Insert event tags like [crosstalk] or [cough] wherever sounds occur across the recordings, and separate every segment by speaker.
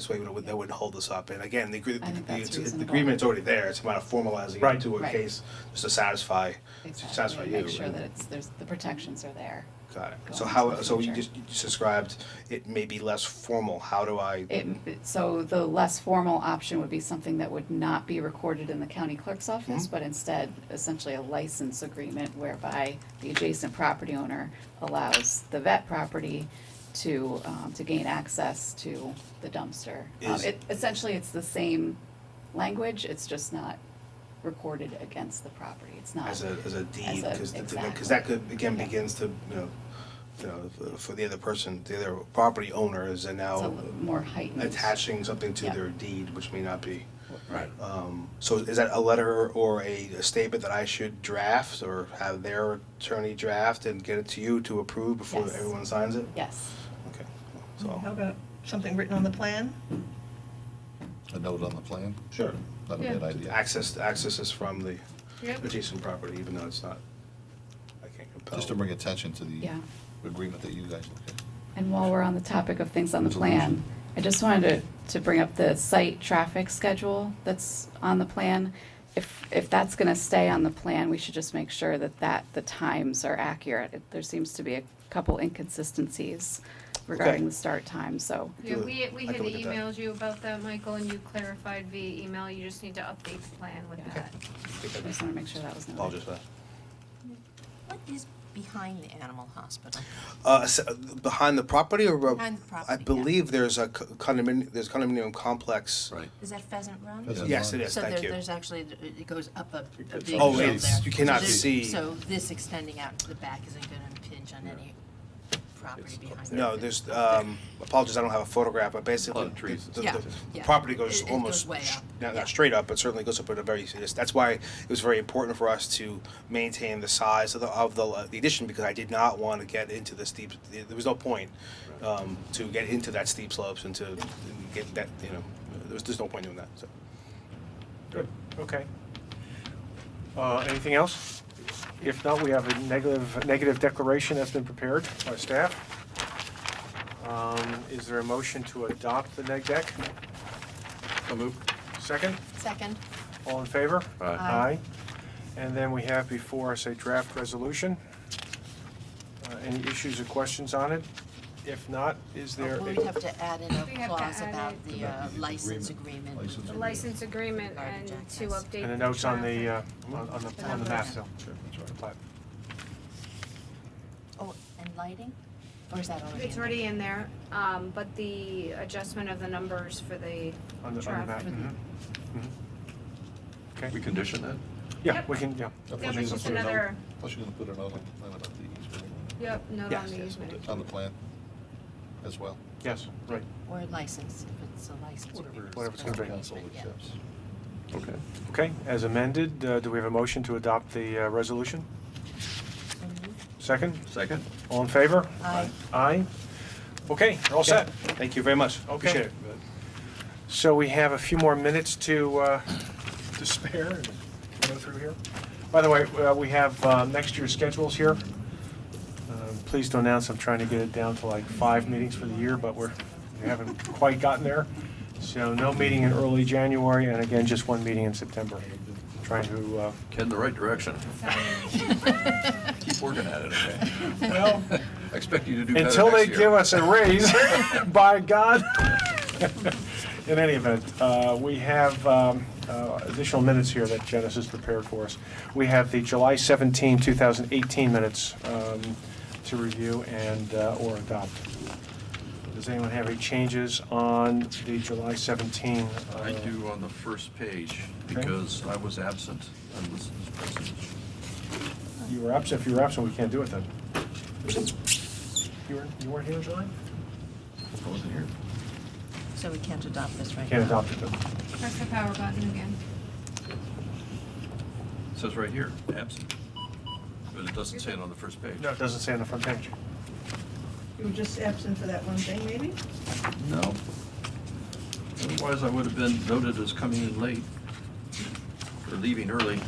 Speaker 1: this way would- that wouldn't hold us up. And again, the agree-
Speaker 2: I think
Speaker 1: the-
Speaker 2: that's
Speaker 1: the- the
Speaker 2: reasonable.
Speaker 1: agreement's already there, it's a matter of formalizing it
Speaker 3: Right.
Speaker 1: to a
Speaker 2: Right.
Speaker 1: case, just to satisfy, to satisfy
Speaker 2: Exactly,
Speaker 1: you.
Speaker 2: make sure
Speaker 1: and-
Speaker 2: that it's, there's, the protections are there.
Speaker 1: Got it.
Speaker 2: going
Speaker 1: So
Speaker 2: into
Speaker 1: how,
Speaker 2: the
Speaker 1: so you
Speaker 2: future.
Speaker 1: just you just described, it may be less formal, how do I,
Speaker 2: It, so the less formal option would be something that would not be recorded in the county clerk's office,
Speaker 1: Mm-hmm.
Speaker 2: but instead essentially a license agreement whereby the adjacent property owner allows the vet property to, um, to gain access to the dumpster. Um,
Speaker 1: Is-
Speaker 2: it- Essentially, it's the same language, it's just not recorded against the property, it's not.
Speaker 1: as a, as a deed?
Speaker 2: a-
Speaker 1: Because that could, again,
Speaker 2: Yeah.
Speaker 1: begins to, you know, you know, for the other person, the other property owner is
Speaker 2: It's a
Speaker 1: now
Speaker 2: little more heightened.
Speaker 1: attaching something to
Speaker 2: Yeah.
Speaker 1: their deed, which may not be.
Speaker 4: Right.
Speaker 1: Um, So is that a letter or a a statement that I should draft or have their attorney draft and get it to you to approve before
Speaker 2: Yes.
Speaker 1: everyone signs it?
Speaker 2: Yes,
Speaker 1: Okay,
Speaker 5: How
Speaker 1: so,
Speaker 5: about something written on the plan?
Speaker 4: A note on the plan,
Speaker 1: sure.
Speaker 4: that'd be an idea.
Speaker 1: Access, access is from the
Speaker 5: Yep.
Speaker 1: adjacent property, even though it's not, I can't compel.
Speaker 4: Just to bring attention to the
Speaker 2: yeah.
Speaker 4: agreement that you guys looked at.
Speaker 2: And while we're on the topic of things on the plan, I just wanted to, to bring up the site traffic schedule that's on the plan. If, if that's gonna stay on the plan, we should just make sure that that, the times are accurate. It- There seems to be a couple inconsistencies regarding the start time, so.
Speaker 1: Do
Speaker 6: Yeah,
Speaker 1: it.
Speaker 6: we, we
Speaker 1: I
Speaker 6: had
Speaker 1: can look at that.
Speaker 6: emailed you about that, Michael, and you clarified via email, you just need to update the plan with
Speaker 2: Yeah.
Speaker 6: that.
Speaker 1: I think
Speaker 2: I
Speaker 1: I
Speaker 2: just wanna make sure that was noted.
Speaker 1: Apologize for that.
Speaker 7: What is behind the animal hospital?
Speaker 1: Uh, s- Behind the property or? uh,
Speaker 7: Behind the property,
Speaker 1: I
Speaker 7: yeah.
Speaker 1: believe there's a co- condominium, there's condominium complex.
Speaker 4: Right.
Speaker 7: Is that Pheasant Run?
Speaker 4: Pheasant
Speaker 1: Yes, it is,
Speaker 7: So there,
Speaker 1: thank you.
Speaker 7: there's actually, it goes up a, a big
Speaker 4: Oh,
Speaker 7: hill there.
Speaker 4: it's-
Speaker 1: you cannot
Speaker 7: So this-
Speaker 1: see.
Speaker 7: So this extending out to the back isn't gonna impinge on any property behind it?
Speaker 1: No, there's, um, apologies, I don't have a photograph, but basically.
Speaker 4: Oh, the trees.
Speaker 1: the- the-
Speaker 7: Yeah,
Speaker 1: the
Speaker 7: yeah.
Speaker 1: Property goes
Speaker 7: It- it goes
Speaker 1: almost,
Speaker 7: way
Speaker 1: sh-
Speaker 7: up,
Speaker 1: not,
Speaker 7: yeah.
Speaker 1: not straight up, but certainly goes up at a very, that's why it was very important for us to maintain the size of the, of the, uh, the addition, because I did not want to get into the steep, there was no point, um, to get into that steep slopes and to get that, you know, there was, there's no point doing that, so.
Speaker 3: Good, okay. Uh, Anything else? If not, we have a negative, negative declaration that's been prepared by staff. Um, Is there a motion to adopt the neg deck? So moved. Second?
Speaker 7: Second, uh,
Speaker 3: All in favor?
Speaker 4: Aye.
Speaker 7: Aye.
Speaker 3: And then we have before us a draft resolution. Uh, Any issues or questions on it? If not, is there?
Speaker 7: we'll
Speaker 3: a-
Speaker 7: have to add in a
Speaker 6: We have to
Speaker 7: clause
Speaker 6: add
Speaker 7: about
Speaker 6: it.
Speaker 7: the uh,
Speaker 4: About the
Speaker 7: license
Speaker 4: agreement.
Speaker 7: agreement. with
Speaker 4: License
Speaker 7: the-
Speaker 6: The license agreement and
Speaker 7: Regarding
Speaker 6: to
Speaker 7: Jack Hess.
Speaker 6: update.
Speaker 3: And a note on the, uh,
Speaker 6: traffic.
Speaker 3: on on the,
Speaker 7: The
Speaker 3: on the map,
Speaker 7: numbers.
Speaker 3: so.
Speaker 4: Sure, that's right.
Speaker 3: the plat.
Speaker 7: Oh, and lighting? Or is that already in
Speaker 6: It's
Speaker 7: there?
Speaker 6: already in there, um, but the adjustment of the numbers for the
Speaker 3: On the, Mm-hmm. on the map,
Speaker 6: traffic.
Speaker 3: mhm. Mhm. Okay,
Speaker 8: We condition that?
Speaker 3: yeah, we can, yeah.
Speaker 6: Yeah, there's just another,
Speaker 4: Plus you're gonna put a note on the plan about the easement.
Speaker 6: yep, note on
Speaker 1: Yes,
Speaker 6: the
Speaker 1: yes,
Speaker 6: easement.
Speaker 4: It's on the plan as well.
Speaker 3: Yes, right.
Speaker 7: Or license, if it's a license. agreement.
Speaker 3: Whatever it's gonna be.
Speaker 4: Council
Speaker 7: Yeah.
Speaker 4: accepts.
Speaker 8: Okay.
Speaker 3: Okay, as amended, uh, do we have a motion to adopt the uh, resolution?
Speaker 7: So moved.
Speaker 3: Second?
Speaker 8: Second?
Speaker 3: All in favor?
Speaker 7: Aye.
Speaker 3: Aye? Okay, you're all set.
Speaker 1: Thank you very much,
Speaker 3: Okay.
Speaker 1: appreciate it.
Speaker 3: So we have a few more minutes to, uh, to spare and go through here. By the way, uh, we have uh, next year's schedules here. Um, Pleased to announce, I'm trying to get it down to like five meetings for the year, but we're, we haven't quite gotten there. So no meeting in early January, and again, just one meeting in September. Trying to, uh,
Speaker 8: Ken, the right direction.
Speaker 7: Uh,
Speaker 8: Keep working at it, okay?
Speaker 7: [laughs]
Speaker 3: well,
Speaker 8: [laughs] I expect you to do better next year.
Speaker 3: until they give us
Speaker 8: [laughs]
Speaker 3: a raise, by God. In any event, uh, we have um, uh, additional minutes here that Janice has prepared for us. We have the July 17, 2018 minutes um, to review and, uh, or adopt. Does anyone have any changes on the July 17? uh,
Speaker 8: I do on the first page,
Speaker 3: Okay.
Speaker 8: because I was absent on this, this person.
Speaker 3: You were absent, if you were absent, we can't do it then. You weren't, you weren't here, July?
Speaker 8: I wasn't here.
Speaker 7: So we can't adopt this right now?
Speaker 3: Can't adopt it then.
Speaker 6: Press the power button again.
Speaker 8: It Says right here, absent. But it doesn't say it on the first page.
Speaker 3: No, it doesn't say on the front page.
Speaker 5: You were just absent for that one thing, maybe?
Speaker 8: No. Otherwise, I would have been noted as coming in late, or leaving early.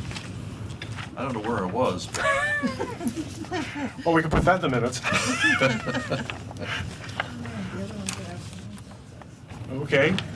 Speaker 8: I don't know where I was, but
Speaker 3: Well, we can put that in the minutes.
Speaker 8: [laughs]
Speaker 5: Oh, No, the other ones are absent.
Speaker 3: Okay,